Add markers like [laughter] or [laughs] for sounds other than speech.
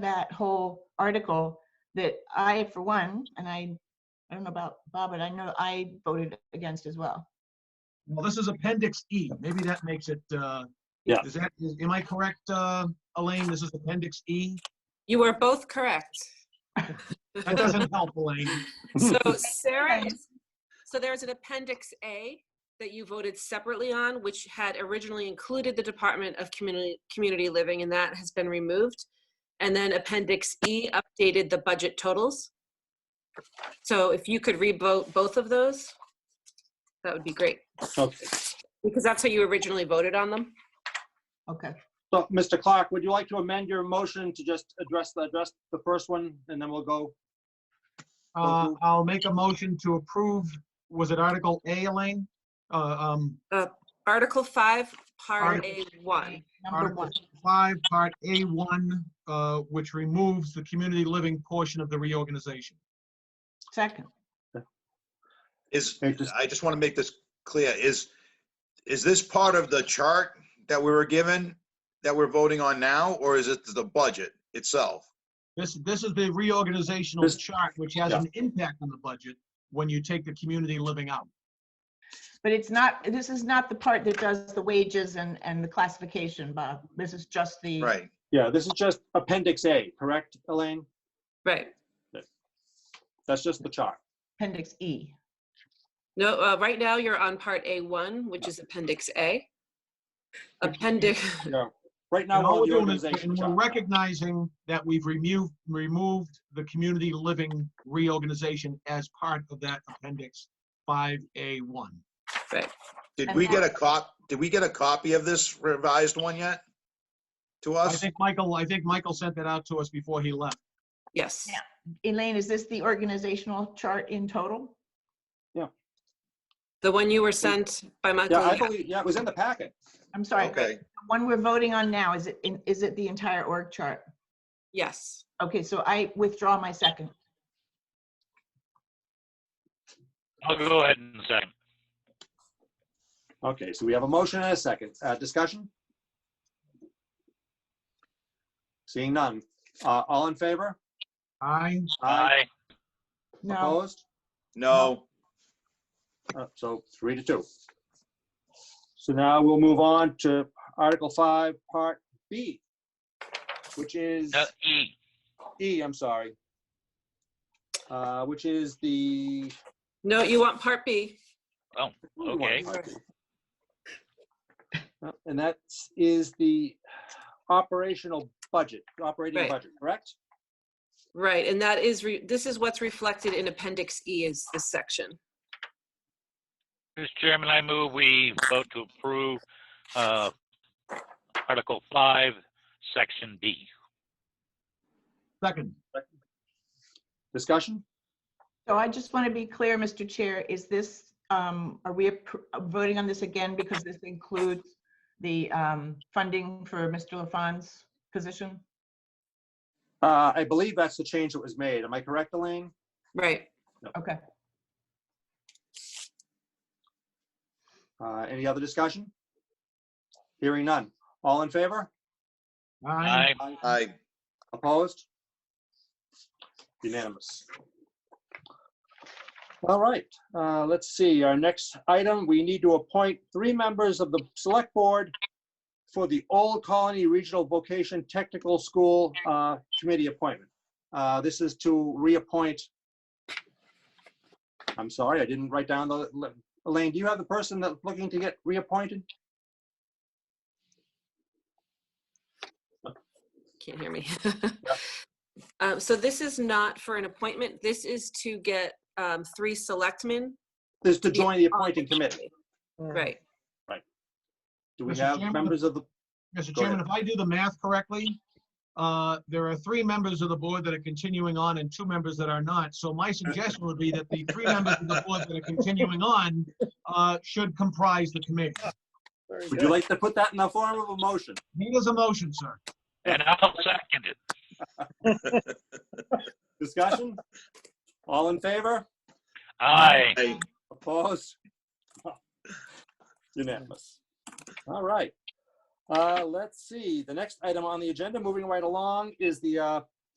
that whole article that I, for one, and I, I don't know about Bob, but I know I voted against as well. Well, this is Appendix E. Maybe that makes it, uh, Yeah. Is that, is- am I correct, uh, Elaine? This is Appendix E? You were both correct. [laughs] That doesn't help, Elaine. [laughs] Hmm. [laughs] So Sarah, Right. is- so there's an appendix A that you voted separately on, which had originally included the Department of Community, Community Living, and that has been removed. And then appendix E updated the budget totals. So if you could re-vote both of those, that would be great, Okay. because that's how you originally voted on them. Okay. So, Mr. Clark, would you like to amend your motion to just address, the address the first one, and then we'll go? Uh, I'll make a motion to approve, was it Article A, Elaine? Uh, um, Article 5, Part Article- A1. Number Article one. five, part A1, uh, which removes the community living portion of the reorganization. Second. Is, Okay, just- I just want to make this clear, is, is this part of the chart that we were given that we're voting on now, or is it the budget itself? This, this is the reorganizational This- chart, which has Yeah. an impact on the budget when you take the community living out. But it's not, this is not the part that does the wages and, and the classification, Bob. This is just the. Mm. Right. Yeah, this is just Appendix A, correct, Elaine? Right. That's just the chart. Appendix E. No, uh, right now you're on Part A1, which is Appendix A. Appendix, [laughs] Yeah. Right now, And all we're on the we're doing is, organization and we're chart. recognizing that we've removed, removed the community living reorganization as part of that appendix 5A1. Did we get a cop, did we get a copy of this revised one yet? To I us? think Michael, I think Michael sent that out to us before he left. yes. Yeah. Elaine, is this the organizational chart in total? The one you were sent by Yeah, Michael. I yeah. believe, yeah, it was in the packet. I'm sorry. Okay, the One we're voting on now, is it, in- is it the entire org chart? Yes. Okay, so I withdraw my second. I'll go ahead and second. Okay, so we have a motion and a second. Uh, Discussion? Seeing none. Uh, All in favor? I, Aye. No, Opposed? no, Uh, So three to two. So now we'll move on to Article 5, Part B, which is, No, E. E, I'm sorry, Uh, which is the. No, you want Part B. Okay. Uh, And that is the operational budget, operating Right. budget, correct? Right, and that is, re- this is what's reflected in Appendix E is this section. Mr. Chairman, I move we vote to approve uh, Article 5, Section B. second, Discussion? so I just want to be clear, Mr. Chair, is this, um, are we appro- voting on this again because this includes the um, funding for Mr. LaFawn's position? Uh, I believe that's the change that was made. Am I correct, Elaine? Right. Okay, Uh, Any other discussion? Hearing none. All in favor? I, Aye. I, Opposed? Unanimous. All right, uh, let's see, our next item, we need to appoint three members of the Select Board for the Old Colony Regional Vocation Technical School uh, Committee appointment. Uh, This is to reappoint, I'm sorry, I didn't write down the, Elaine, do you have the person that's looking to get reappointed? Can't hear me. [laughs] Um, So this is not for an appointment. This is to get um, three selectmen. This is to join uh, the appointing committee. Right. Do we Mr. have Chairman? members of the, Mr. Go Chairman, ahead. if I do the math correctly, uh, there are three members of the board that are continuing on and two members that are not. So my suggestion would be that the [laughs] three members of the board that are continuing on uh, should comprise the committee. would you like to put that in the form of a motion? Need is a motion, sir. And I'll second it. Discussion? All in favor? Aye. I, Opposed? Unanimous. All right. Uh, Let's see, the next item on the agenda, moving right along, is the uh,